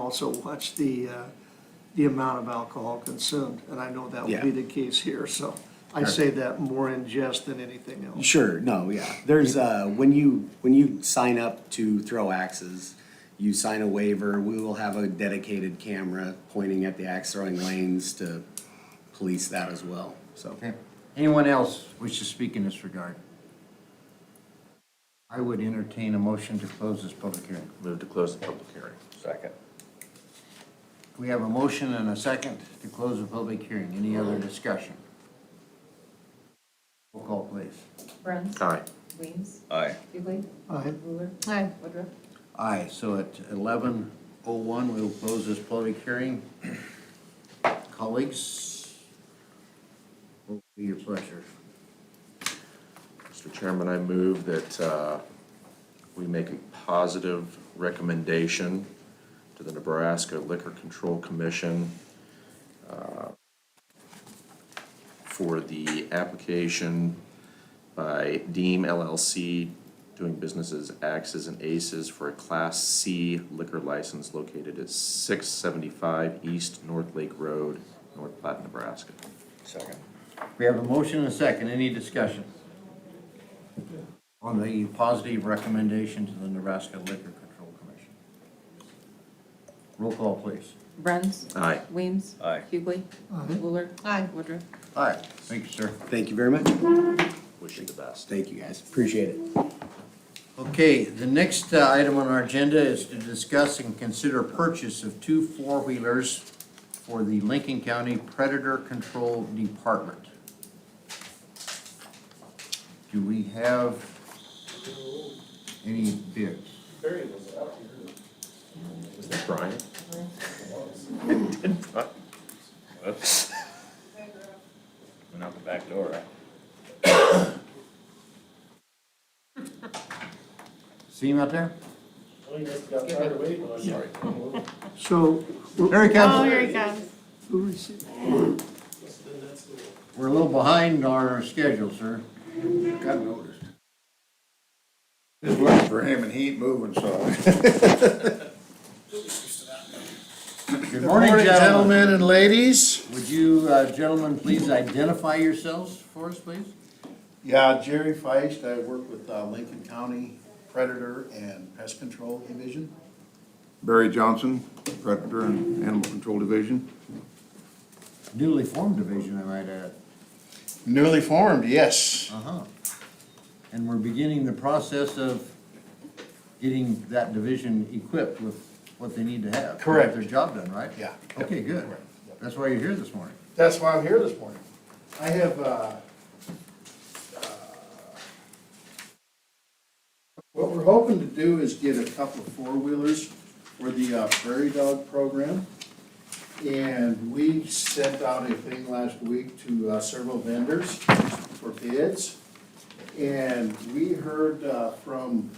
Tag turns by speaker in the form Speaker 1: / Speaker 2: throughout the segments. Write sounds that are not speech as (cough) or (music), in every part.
Speaker 1: also watch the, uh, the amount of alcohol consumed, and I know that will be
Speaker 2: Yeah.
Speaker 1: the case here, so I say that more in jest than anything else.
Speaker 2: Sure, no, yeah. There's, uh, when you, when you sign up to throw axes, you sign a waiver, we will have a dedicated camera pointing at the axe throwing lanes to police that as well, so.
Speaker 3: Okay. Anyone else wish to speak in this regard? I would entertain a motion to close this public hearing.
Speaker 4: Move to close the public hearing. Second.
Speaker 3: We have a motion and a second to close the public hearing. Any other discussion? Roll call, please.
Speaker 5: Bruns.
Speaker 4: Aye.
Speaker 5: Weems.
Speaker 4: Aye.
Speaker 5: Hughley.
Speaker 1: Aye.
Speaker 5: Wheeler. Woodruff.
Speaker 3: Aye, so at eleven oh one, we will close this public hearing. Colleagues, what will be your pleasure?
Speaker 4: Mr. Chairman, I move that uh, we make a positive recommendation to the Nebraska Liquor Control Commission uh, for the application by Deem LLC, doing business as Axes and Aces for a Class C liquor license located at 675 East North Lake Road, North Platte, Nebraska.
Speaker 3: Second. We have a motion and a second. Any discussion? On the positive recommendation to the Nebraska Liquor Control Commission. Roll call, please.
Speaker 5: Bruns.
Speaker 4: Aye.
Speaker 5: Weems.
Speaker 4: Aye.
Speaker 5: Hughley. Wheeler. Aye. Woodruff.
Speaker 3: Aye. Thank you, sir.
Speaker 2: Thank you very much.
Speaker 4: Wish you the best.
Speaker 2: Thank you, guys. Appreciate it.
Speaker 3: Okay, the next uh, item on our agenda is to discuss and consider purchase of two four-wheelers for the Lincoln County Predator Control Department. Do we have any bids?
Speaker 4: Is
Speaker 6: (laughs)
Speaker 4: that Brian?
Speaker 6: Went out the back door, right?
Speaker 3: See him out there?
Speaker 1: So,
Speaker 3: There he
Speaker 1: Oh,
Speaker 3: comes.
Speaker 5: he comes.
Speaker 1: who received,
Speaker 3: We're a little behind our schedule, sir.
Speaker 7: Got noticed. Just looking for him and he ain't moving, so.
Speaker 3: Good morning, gentlemen.
Speaker 7: and ladies.
Speaker 3: Would you uh, gentlemen please identify yourselves for us, please?
Speaker 7: Yeah, Jerry Feist, I work with uh, Lincoln County Predator and Pest Control Division.
Speaker 8: Barry Johnson, Predator and Animal Control Division.
Speaker 3: Newly formed division, I might add.
Speaker 7: Newly formed, yes.
Speaker 3: Uh-huh. And we're beginning the process of getting that division equipped with what they need to have. to
Speaker 7: Correct.
Speaker 3: Get their job done, right?
Speaker 7: Yeah.
Speaker 3: Okay, good.
Speaker 7: Correct. Yep.
Speaker 3: That's why you're here this morning.
Speaker 7: That's why I'm here this morning. I have, uh, uh, what we're hoping to do is get a couple of four-wheelers for the uh, Prairie Dog program. And we sent out a thing last week to uh, several vendors for bids. And we heard uh, from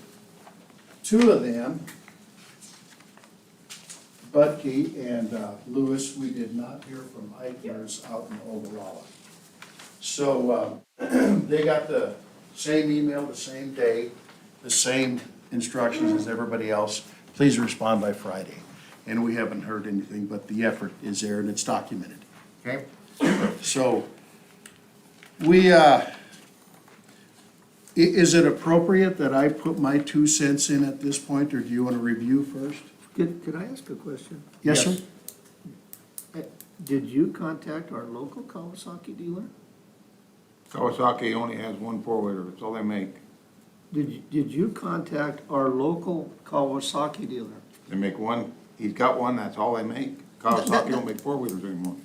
Speaker 7: two of them, Budke and uh, Lewis, we did not hear from Eichner's out in Ogallala. So um, (clears throat) they got the same email, the same day, the same instructions as everybody else. Please respond by Friday. And we haven't heard anything, but the effort is there and it's documented.
Speaker 3: Okay?
Speaker 7: So we, uh, i- is it appropriate that I put my two cents in at this point, or do you want to review first?
Speaker 1: could, could I ask a question? Uh,
Speaker 7: Yes, sir?
Speaker 3: Yes.
Speaker 1: Did you contact our local Kawasaki dealer?
Speaker 8: Kawasaki only has one four-wheeler, that's all they make.
Speaker 1: Did, you- did you contact our local Kawasaki dealer?
Speaker 8: They make one, he's got one, that's all they make. Kawasaki don't make four-wheelers anymore.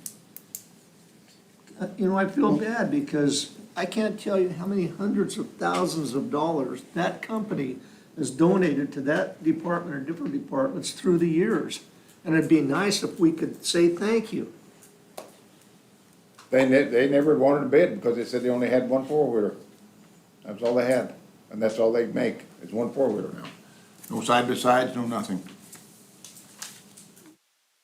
Speaker 1: Uh, You know, I feel bad because I can't tell you how many hundreds of thousands of dollars that company has donated to that department or different departments through the years. And it'd be nice if we could say thank you.
Speaker 8: They ne- they never wanted a bid because they said they only had one four-wheeler. That's all they had, and that's all they make, is one four-wheeler now. No side-by-sides, no nothing.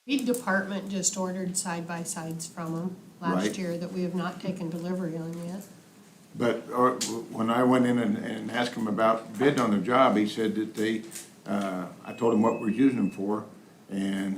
Speaker 9: Weed department just ordered side-by-sides from them last
Speaker 8: Right.
Speaker 9: year that we have not taken delivery on yet.
Speaker 8: But uh, when I went in and, and asked him about bidding on the job, he said that they, uh, I told him what we're using them for, and